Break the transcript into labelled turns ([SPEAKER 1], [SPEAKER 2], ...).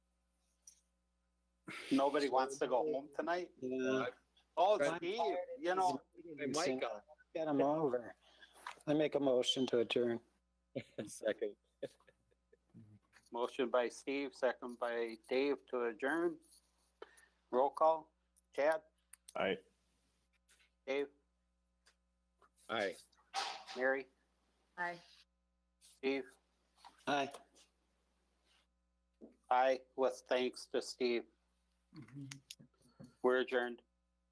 [SPEAKER 1] Nobody wants to go home tonight?
[SPEAKER 2] Yeah,
[SPEAKER 1] Oh,
[SPEAKER 2] I'm
[SPEAKER 1] it's Eve, you know,
[SPEAKER 2] I might go.
[SPEAKER 3] Get them over. I make a motion to adjourn.
[SPEAKER 2] Second.
[SPEAKER 1] motion by Steve, second by Dave to adjourn. Roll call, Chad,
[SPEAKER 4] Aye.
[SPEAKER 1] Dave,
[SPEAKER 2] Aye.
[SPEAKER 1] Mary,
[SPEAKER 5] Aye.
[SPEAKER 1] Steve.
[SPEAKER 3] Aye.
[SPEAKER 1] Aye, with thanks to Steve. We're adjourned.